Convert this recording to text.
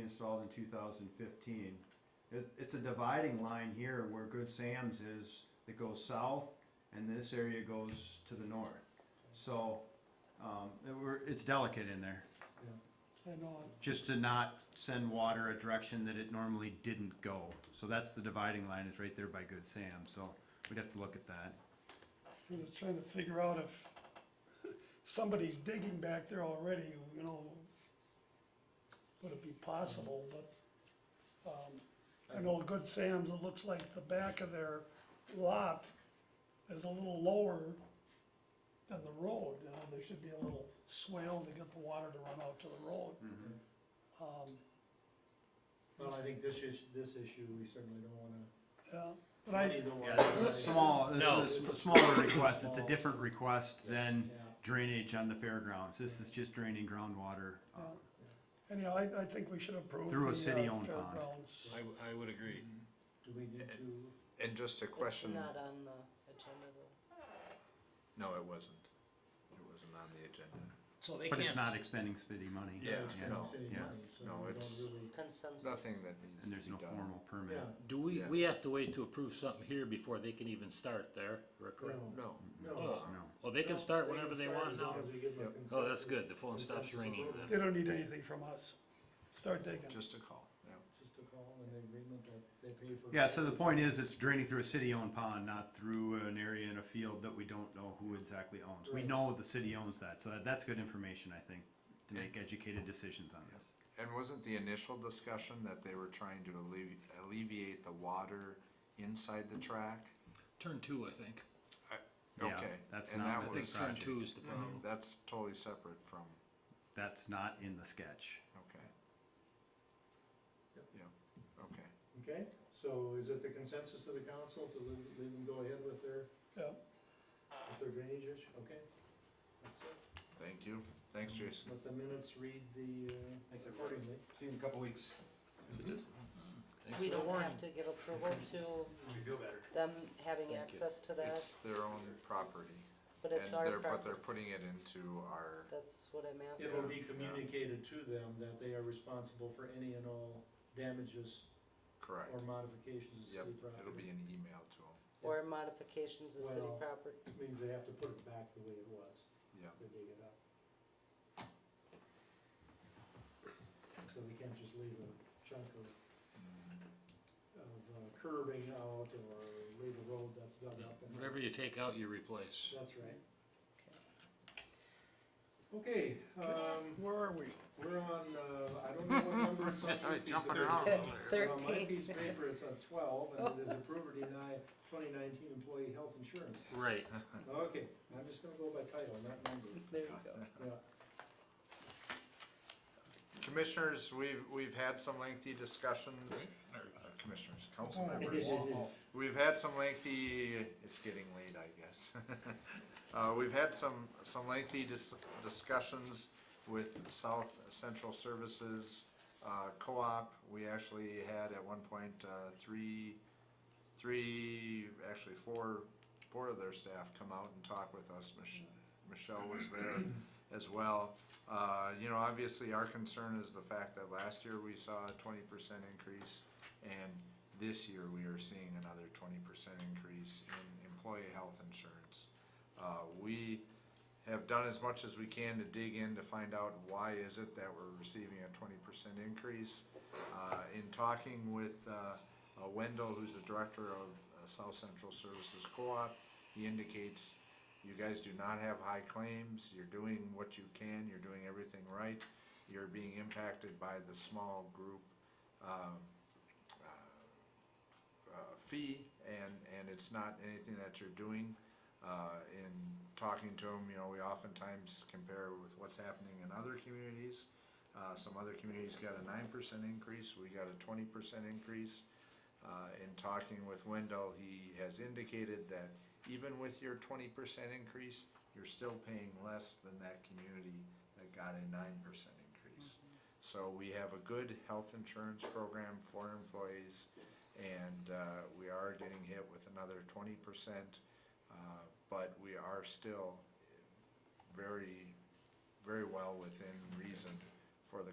installed in two thousand fifteen. It, it's a dividing line here where Good Sam's is, that goes south, and this area goes to the north. So, um, it were, it's delicate in there, I know, it. just to not send water a direction that it normally didn't go. So that's the dividing line, is right there by Good Sam, so we'd have to look at that. I was trying to figure out if somebody's digging back there already, you know, would it be possible, but, um, I know Good Sam's, it looks like the back of their lot is a little lower than the road, you know, there should be a little swale to get the water to run out to the road. Mm-hmm. Um, Well, I think this is, this issue, we certainly don't wanna. yeah, but I, Neither one Yeah, of this us. is small, No. this is a smaller request, it's a Small. different request than Yeah. drainage on the fairgrounds, this is just draining groundwater. uh, Yeah. anyhow, I, I think we should approve Through a the, uh, city-owned pond. fairgrounds. I, w- I would agree. Do we need to? And just a question, It's not on the agenda though. no, it wasn't. It wasn't on the agenda. So they But it's can't, not expending city money. Yeah, It's yeah, not no, city yeah. money, so No, we it's- don't really. Consensus. Nothing that needs And to there's be no done. formal permit. Yeah. e, do we, Yeah. we have to wait to approve something here before they can even start there, or correct? No. No, No. No. Oh, they can No, start they whenever can they start want as now. long as we give them Yep. Oh, that's consensus- good, the phone stops consensus ringing approval. They then. don't need anything from us. Start digging. just a call, yeah. Just a call and an agreement that they pay for. Yeah, so the point is, it's draining through a city-owned pond, not through an area in a field that we don't know who exactly owns. We Right. know the city owns that, so that- that's good information, I think, to make educated decisions on this. And wasn't the initial discussion that they were trying to allevi- alleviate the water inside the track? Turn two, I think. Yeah, Okay, that's and not that I what the think was, turn project, two is the problem. that's totally separate from, that's not in the sketch. okay. Yep. Yeah, okay. Okay, so is it the consensus of the council to leave, leave them go ahead with their, Yeah. with their drainage issue? Okay. That's it. Thank you. Thanks, Jason. Let the minutes read the, Thanks, uh, everybody. accordingly. See you in a couple weeks. Thanks We for don't warning. have to get approval to You feel better. them having Thank you. access to that, It's their own property. but and it's our they're But property. they're putting it into our, That's what I'm asking. It will be communicated to them that they are responsible for any and all damages correct. or modifications to city Yep, it'll property. be an email to them. Or modifications of city Well, property. Means they have to put it back the way it was, Yeah. they dig it up. So we can't just leave a chunk of, Mm. of uh, curbing out or leave a road that's dug up. and- Whatever you take out, you replace. That's right. Okay, um, Where are we? we're on, uh, I don't know what number it's on. 53. jumping around. Okay, Well, my Thirteen. piece of paper, it's on twelve, and it is approve or deny twenty nineteen employee health insurance. Right, Okay, I'm just gonna go by title, not number, There you go. yeah. Commissioners, we've, we've had some lengthy discussions, or, uh, commissioners, council members. We've had some lengthy, it's getting late, I guess. Uh, we've had some, some lengthy dis- discussions with South Central Services, uh, co-op. We actually had at one point, uh, three, three, actually four, four of their staff come out and talk with us. Mich- Michelle was there as well. Uh, you know, obviously our concern is the fact that last year we saw a twenty percent increase and this year we are seeing another twenty percent increase in employee health insurance. Uh, we have done as much as we can to dig in to find out why is it that we're receiving a twenty percent increase. Uh, in talking with, uh, uh, Wendell, who's the director of uh, South Central Services Co-op, he indicates you guys do not have high claims, you're doing what you can, you're doing everything right, you're being impacted by the small group, um, uh, fee, and, and it's not anything that you're doing. Uh, in talking to them, you know, we oftentimes compare with what's happening in other communities. Uh, some other communities got a nine percent increase, we got a twenty percent increase. Uh, in talking with Wendell, he has indicated that even with your twenty percent increase, you're still paying less than that community that got a nine percent increase. So we have a good health insurance program for employees and uh, we are getting hit with another twenty percent. uh, But we are still very, very well within reason for the